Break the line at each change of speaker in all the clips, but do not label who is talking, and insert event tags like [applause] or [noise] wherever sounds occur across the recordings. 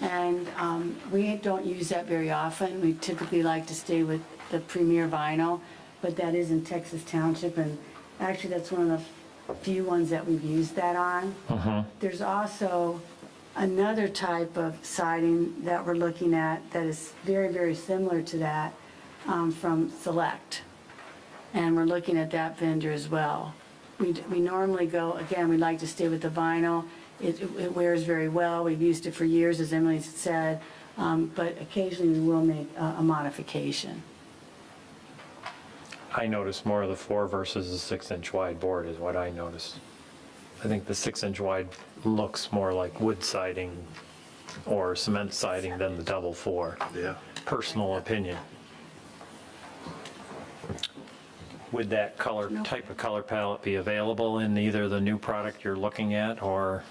And um, we don't use that very often. We typically like to stay with the Premier Vinyl, but that is in Texas Township, and actually, that's one of the few ones that we've used that on. There's also another type of siding that we're looking at that is very, very similar to that um, from Select. And we're looking at that vendor as well. We, we normally go, again, we like to stay with the vinyl. It, it wears very well. We've used it for years, as Emily said. Um, but occasionally we will make a, a modification.
I noticed more of the four versus the six inch wide board is what I noticed. I think the six inch wide looks more like wood siding or cement siding than the double four.
Yeah.
Personal opinion. Would that color,
No.
type of color palette be available in either the new product you're looking at or?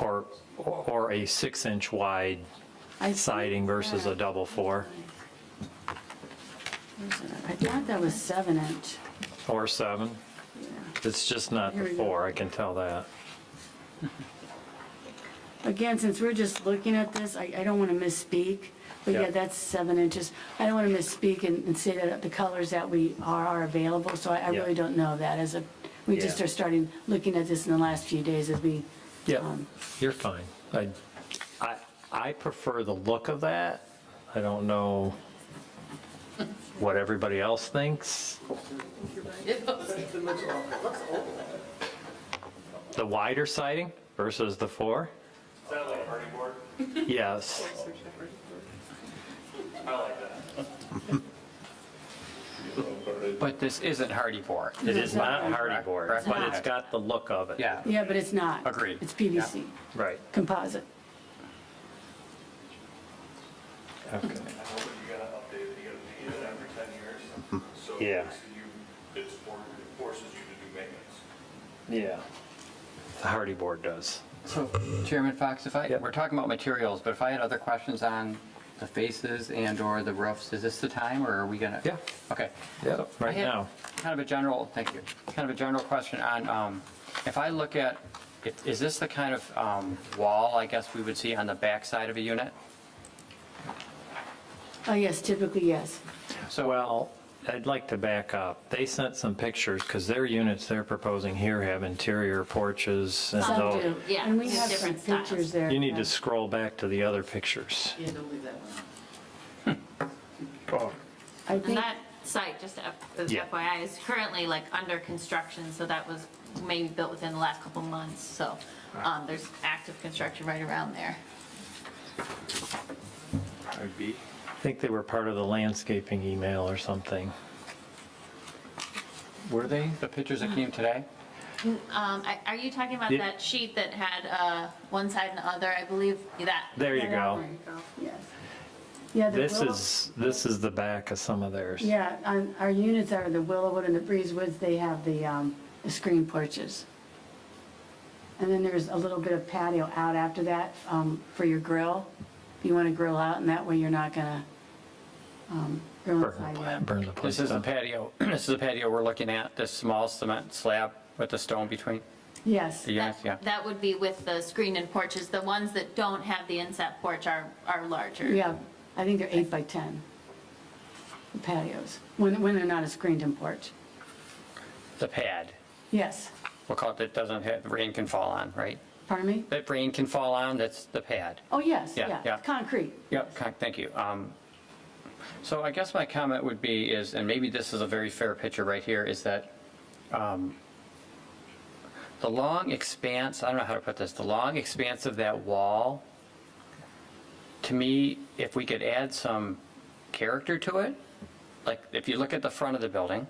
Or, or a six inch wide
I-
siding versus a double four?
I thought that was seven inch.
Or seven. It's just not
Here
the
we go.
four, I can tell that.
Again, since we're just looking at this, I, I don't want to misspeak, but yeah,
Yeah.
that's seven inches. I don't want to misspeak and, and say that the colors that we are, are available, so I, I
Yeah.
really don't know that as a, we just
Yeah.
are starting, looking at this in the last few days as we. um,
You're fine. I, I, I prefer the look of that. I don't know what everybody else thinks. The wider siding versus the four?
Is that like a party board?
Yes.
I like that. [laughs]
But this isn't hardy board.
It is not hardy board,
Correct.
but it's got the look of it.
Yeah.
Yeah, but it's not.
Agreed.
It's PVC,
Right.
composite.
Okay.
I hope that you gotta update it, you gotta pay it every ten years. So
Yeah.
it's you, it's for, it forces you to do maintenance.
Yeah. The hardy board does.
So Chairman Fox, if I,
Yep.
we're talking about materials, but if I had other questions on the faces and/or the roofs, is this the time or are we gonna?
Yeah.
Okay.
Yeah,
So I
right
had
now.
Kind of a general, thank you, kind of a general question on, um, if I look at, if- is this the kind of um, wall, I guess, we would see on the backside of a unit?
Oh, yes, typically, yes.
So
Well, I'd like to back up. They sent some pictures, because their units they're proposing here have interior porches and
Some
though.
do.
yeah,
And we
there's
have some
different styles.
pictures there.
You need
yeah.
to scroll back to the other pictures.
Yeah, don't leave that one out.
I
And
think,
that site, just to F- as
Yeah.
FYI, is currently like under construction, so that was maybe built within the last couple months, so um, there's active construction right around there.
I think they were part of the landscaping email or something. Were they?
the pictures that came today?
Um, I- Are you talking about
Yeah.
that sheet that had uh, one side and the other? I believe that.
There you go.
yes. Yeah, the
This
willow-
is, this is the back of some of theirs.
Yeah, on, our units are the Willowwood and the Breezewoods, they have the, um, the screen porches. And then there's a little bit of patio out after that, um, for your grill. If you wanna grill out, and that way you're not gonna, um, grill
Burn the pla-
inside.
burn the place
This is the
down.
patio, [clears throat] this is the patio we're looking at, this small cement slab with the stone between?
Yes,
The units,
That-
yeah.
That would be with the screen and porches. The ones that don't have the inset porch are, are larger.
yeah, I think they're eight by 10 the patios, when, when they're not a screened-in porch.
The pad,
Yes,
we'll call it, that doesn't have, rain can fall on, right?
pardon me?
That rain can fall on, that's the pad.
Oh, yes,
Yeah,
yeah,
yeah.
concrete.
Yep, con- thank you. Um, So I guess my comment would be is, and maybe this is a very fair picture right here, is that um, the long expanse, I don't know how to put this, the long expanse of that wall, to me, if we could add some character to it, like if you look at the front of the building,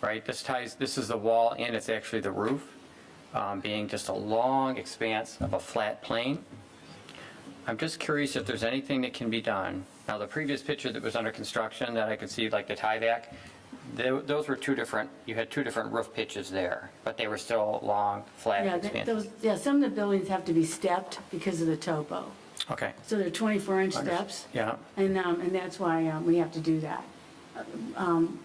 right, this ties, this is the wall and it's actually the roof, um, being just a long expanse of a flat plane. I'm just curious if there's anything that can be done. Now, the previous picture that was under construction that I could see, like the tieback, tho- those were two different, you had two different roof pitches there, but they were still long, flat
Yeah, th-
expanses.
those, yeah, some of the buildings have to be stepped because of the topo.
Okay,
So they're 24-inch steps.
yeah.
And, um, and that's why um, we have to do that. Um,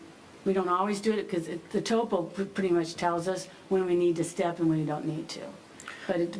We don't always do it because the topo pr- pretty much tells us when we need to step and when we don't need to. But it,